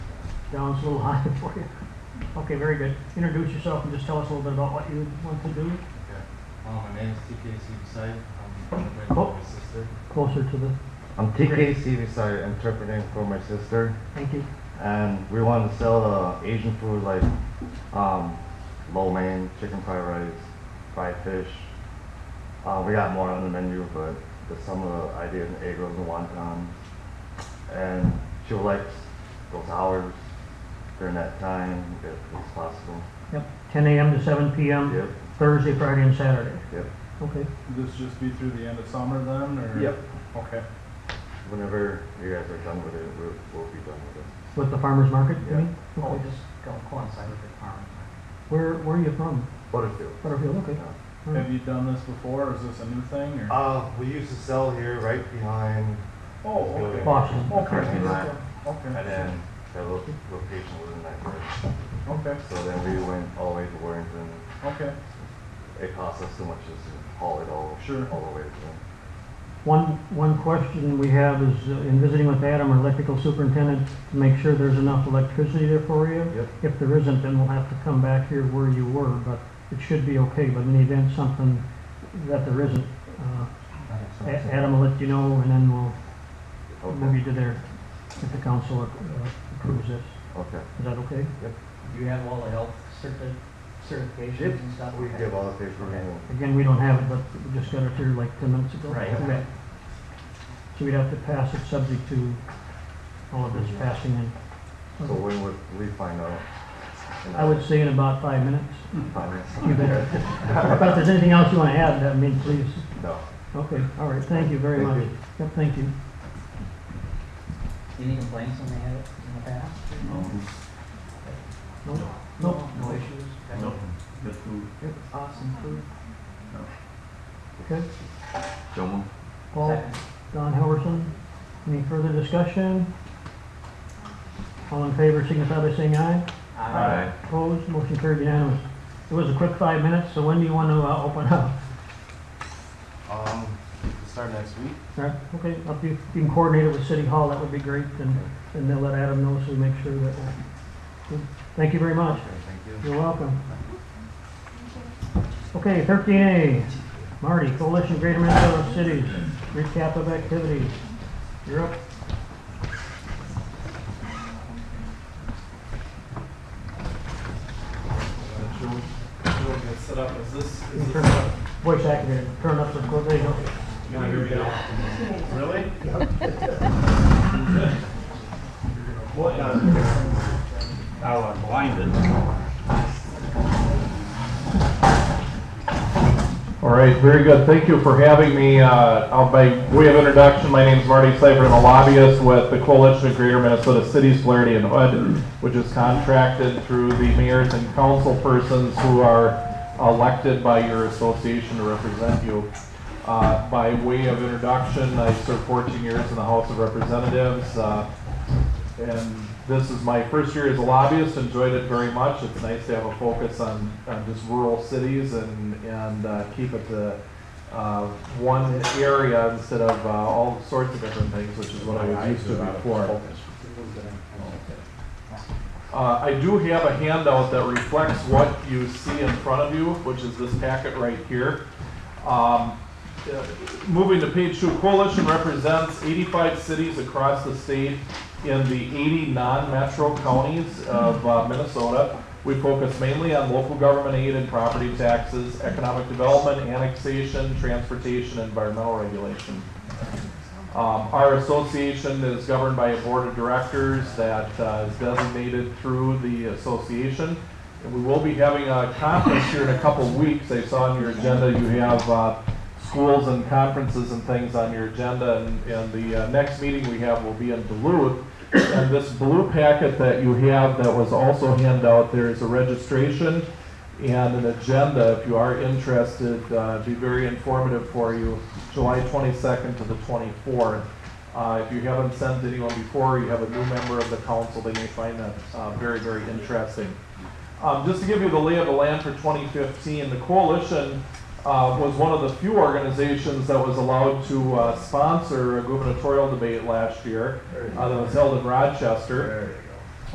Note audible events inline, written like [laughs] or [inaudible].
Down, it's a little [laughs] high for you. Okay, very good. Introduce yourself and just tell us a little bit about what you want to do Um, Uh, my name is TKC Visai. I'm interpreting Oh. for my sister. closer to the, I'm TKC Visai, interpreting for my sister. thank you. And we want to sell uh, Asian food like um, lo mein, chicken fried rice, fried fish. Uh, we got more on the menu, but there's some of the ideas in egg rolls and wonton. And she would like those hours during that time if it's possible. Yep, 10 AM to 7 PM, Yep, Thursday, Friday, and Saturday. yep. Okay, This just be through the end of summer then, or? Yep. Okay. Whenever you guys are done with it, we'll, we'll be done with it. with the farmer's market, you Yeah. mean? Oh, Okay. just go coincide with the farmer's market. Where, where are you from? Butterfield. Butterfield, okay. Yeah. All right. Have you done this before, or is this a new thing, or? Uh, we used to sell here right behind, Oh, okay. Okay. Boston. Currently not. and Okay. then the lo- location wasn't that good. Okay, So then we went all the way to Warrington. okay, It cost us so much just to haul it all, Sure. all the way to One, one question we have is, uh, in visiting with Adam, our electrical superintendent, to make sure there's enough electricity there for you. Yep. If there isn't, then we'll have to come back here where you were, but it should be okay, but in the event something that there isn't, uh, A- Adam will let you know, and then we'll move Okay. you to there, if the council uh, approves this. Okay. Is that okay? Do you have all the health certi- certifications and stuff? We give all the paperwork. and- Again, we don't have it, but we just got it here like ten minutes ago. Right. Okay. So we'd have to pass it subject to all of this passing in. So when would we find out? And I would Hmm. say in about five minutes. find out. You bet. But if there's anything else you want to add, I mean, please. No. Okay, all right, thank you very Thank much. you. Yep, thank you. Any complaints when they had it in the past? No. No. No issues? Nope. Good food. Good, Awesome food. Okay, So moved. Paul, Second. Don Helverson, any further discussion? All in favor, signify by saying aye. Aye. Opposed, motion carried unanimous. It was a quick five minutes, so when do you want to uh, open up? Um, start next week? Right, Okay, if you you can coordinate it with City Hall, that would be great, and, and they'll let Adam know so we make sure that. we'll- Thank you very much. Okay, thank you. You're welcome. Okay, thirteen A, Marty, Coalition Greater Minnesota Cities, recap of activities. You're up. She'll, she'll get set up, is this, You is can turn this? up, voice activated, turn up the, there you go. Can I hear you now? Really? [laughs] What does? Now I'm blinded. All right, very good. Thank you for having me. Uh, I'll- By way of introduction, my name is Marty Seifert. I'm a lobbyist with the Coalition of Greater Minnesota Cities, Flaherty and Hood, which is contracted through the mayors and council persons who are elected by your association to represent you. Uh, By way of introduction, I served 14 years in the House of Representatives. uh, and this is my first year as a lobbyist. Enjoyed it very much. It's nice to have a focus on, on just rural cities and and uh, keep it to uh, one area instead of uh, all sorts of different things, which is what I was used to before. Uh, I do have a handout that reflects what you see in front of you, which is this packet right here. Um, uh, Moving to page two, Coalition represents 85 cities across the state in the 80 non-metro counties of uh, Minnesota. We focus mainly on local government aid and property taxes, economic development, annexation, transportation, and environmental regulation. Um, Our association is governed by a board of directors that uh, is designated through the association. And we will be having a conference here in a couple weeks. I saw on your agenda, you have uh, schools and conferences and things on your agenda. And- And the uh, next meeting we have will be in Duluth. And this blue packet that you have that was also handed out, there is a registration and an agenda if you are interested. Uh, it'd be very informative for you, July 22nd to the 24th. Uh, if you haven't sent anyone before, you have a new member of the council, they may find that uh, very, very interesting. Um, just to give you the lay of the land for 2015, the coalition uh, was one of the few organizations that was allowed to uh, sponsor a gubernatorial debate last year uh, that was held in Rochester.